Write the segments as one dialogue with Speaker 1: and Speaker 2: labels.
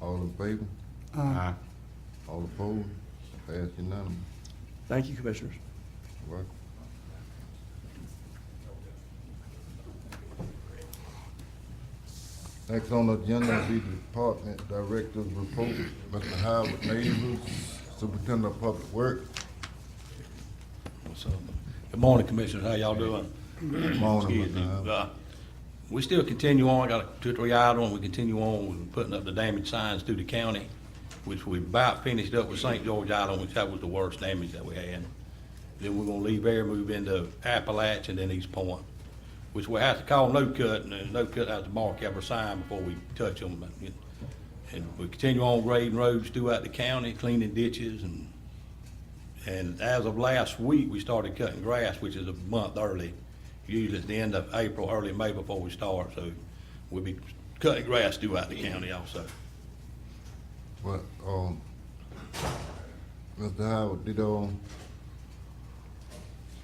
Speaker 1: All in favor?
Speaker 2: Aye.
Speaker 1: All opposed? Pass unanimous.
Speaker 3: Thank you, Commissioners.
Speaker 1: Welcome. Next on the agenda will be the Department Director's Report, Mr. Howard Neighbors, Superintendent of Public Works.
Speaker 4: What's up? Good morning, Commissioners. How y'all doing?
Speaker 1: Morning,
Speaker 4: Excuse me.
Speaker 1: Mr. Howard.
Speaker 4: Uh, We still continue on. I got a two, or three items. We continue on with putting up the damaged signs through the county, which we about finished up with St. George Island, which that was the worst damage that we had. Then we're gonna leave there, move into Appalachia and then East Point, which we have to call no cut, and then no cut has to mark every sign before we touch them. And we continue on grading roads throughout the county, cleaning ditches and and as of last week, we started cutting grass, which is a month early. Usually it's the end of April, early May before we start, so we'll be cutting grass throughout the county also.
Speaker 1: But, um, Mr. Howard, did, um,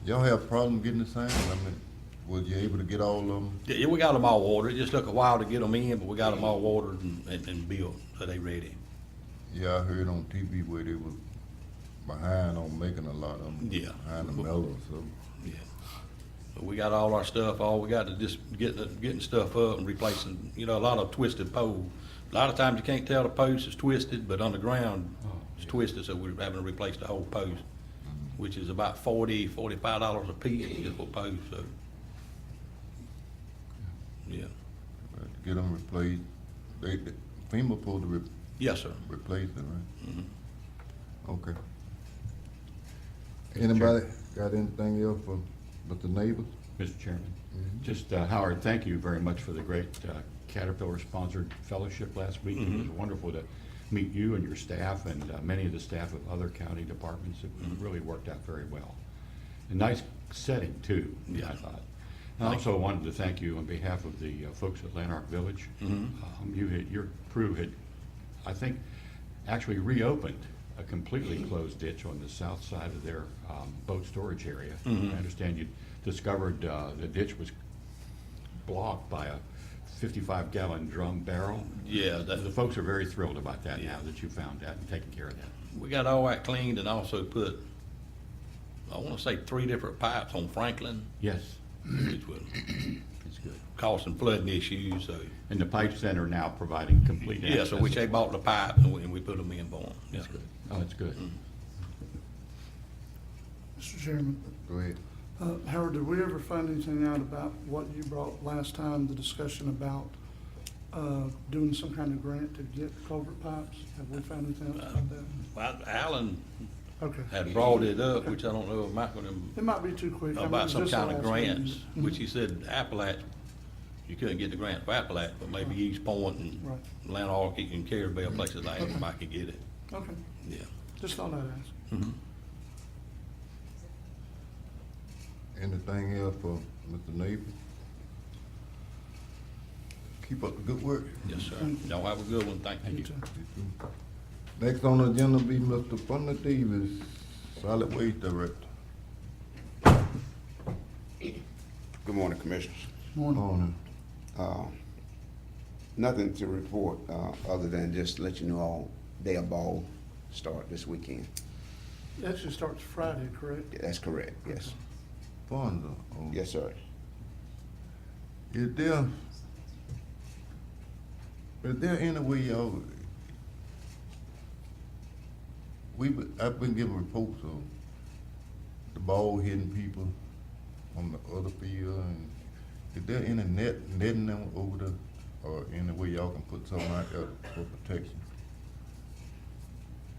Speaker 1: y'all have problem getting the signs? I mean, was you able to get all of them?
Speaker 4: Yeah, yeah, we got them all ordered. It just took a while to get them in, but we got them all ordered and, and- and built, so they ready.
Speaker 1: Yeah, I heard on TV where they was behind on making a lot of them.
Speaker 4: Yeah.
Speaker 1: Behind the mellow, so.
Speaker 4: Yeah. But we got all our stuff, all we got to just get, the- getting stuff up and replacing, you know, a lot of twisted poles. A lot of times you can't tell the post is twisted, but underground it's twisted, so we're having to replace the whole post, which is about forty, forty-five dollars a piece, just for post, so. Yeah.
Speaker 1: Right, to Get them replaced. They, they- FEMA supposed to re-
Speaker 4: Yes, sir.
Speaker 1: replace it, right? Okay. Anybody got anything else for Mr. Neighbors?
Speaker 2: Mr. Chairman, just, uh, Howard, thank you very much for the great uh, Caterpillar-sponsored fellowship last week. It was wonderful to meet you and your staff and uh, many of the staff of other county departments. It really worked out very well. A nice setting, too, I
Speaker 4: Yeah.
Speaker 2: thought. And I also wanted to thank you on behalf of the uh, folks at Lanark Village.
Speaker 4: Mm-hmm.
Speaker 2: Um, You had, your crew had, I think, actually reopened a completely closed ditch on the south side of their um, boat storage area. I
Speaker 4: Mm-hmm.
Speaker 2: understand you discovered uh, the ditch was blocked by a fifty-five gallon drum barrel.
Speaker 4: Yeah,
Speaker 2: The
Speaker 4: that,
Speaker 2: folks are very thrilled about that now that you found that and taken care of that.
Speaker 4: we got all that cleaned and also put, I wanna say three different pipes on Franklin,
Speaker 2: Yes,
Speaker 4: which was
Speaker 2: it's good.
Speaker 4: causing flooding issues, so.
Speaker 2: And the pipe center now providing complete access.
Speaker 4: Yeah, so we, they bought the pipe and we, and we put them in for them.
Speaker 2: That's good. Oh, it's good.
Speaker 5: Mr. Chairman,
Speaker 1: Go ahead.
Speaker 5: uh, Howard, did we ever find anything out about what you brought last time, the discussion about uh, doing some kind of grant to get culvert pipes? Have we found anything else about that?
Speaker 4: Well, Alan
Speaker 5: Okay.
Speaker 4: had Uh, brought it up, which I don't know if Michael and
Speaker 5: It might be too quick. I mean, it
Speaker 4: about
Speaker 5: was
Speaker 4: some
Speaker 5: just the
Speaker 4: kind of
Speaker 5: last meeting.
Speaker 4: grants, which he said Appalach, you couldn't get the grant for Appalach, but maybe East Point and
Speaker 5: Right.
Speaker 4: Lanark and Carabel, places like that, might could get it,
Speaker 5: Okay,
Speaker 4: yeah.
Speaker 5: just thought I'd ask.
Speaker 1: Anything else for Mr. Neighbors? Keep up the good work.
Speaker 4: Yes, sir. Y'all have a good one, thank you.
Speaker 5: Mm-hmm. You too.
Speaker 1: Next on the agenda be Mr. Fonda Davis, Solid Waste Director.
Speaker 6: Good morning, Commissioners.
Speaker 5: Morning.
Speaker 1: Morning.
Speaker 6: Uh, Nothing to report, uh, other than just let you know all day of ball start this weekend.
Speaker 5: It actually starts Friday, correct?
Speaker 6: That's correct, yes.
Speaker 1: Fonda. oh,
Speaker 6: Yes, sir.
Speaker 1: Is there, is there any way y'all, we, been- I've been getting reports of the ball hitting people on the other field and is there any net, netting them over there or any way y'all can put something out there for protection?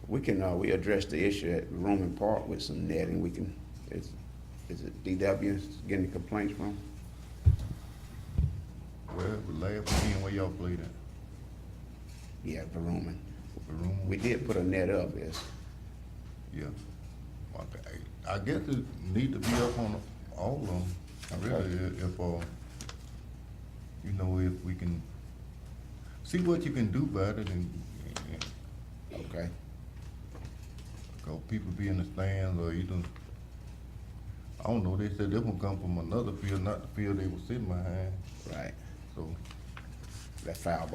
Speaker 6: We can, uh, we addressed the issue at Roman Park with some netting. We can, is, is it DW getting the complaints from?
Speaker 1: Well, the last game where y'all played at,
Speaker 6: Yeah, for Roman.
Speaker 1: the room?
Speaker 6: We did put a net up, yes.
Speaker 1: Yeah. Okay. I guess it need to be up on all of them, really, i- if, uh, you know, if we can, see what you can do about it and, and-
Speaker 6: Okay,
Speaker 1: cause people be in the stands or either, I don't know, they said they gonna come from another field, not the field they were sitting behind,
Speaker 6: right.
Speaker 1: so.
Speaker 6: That foul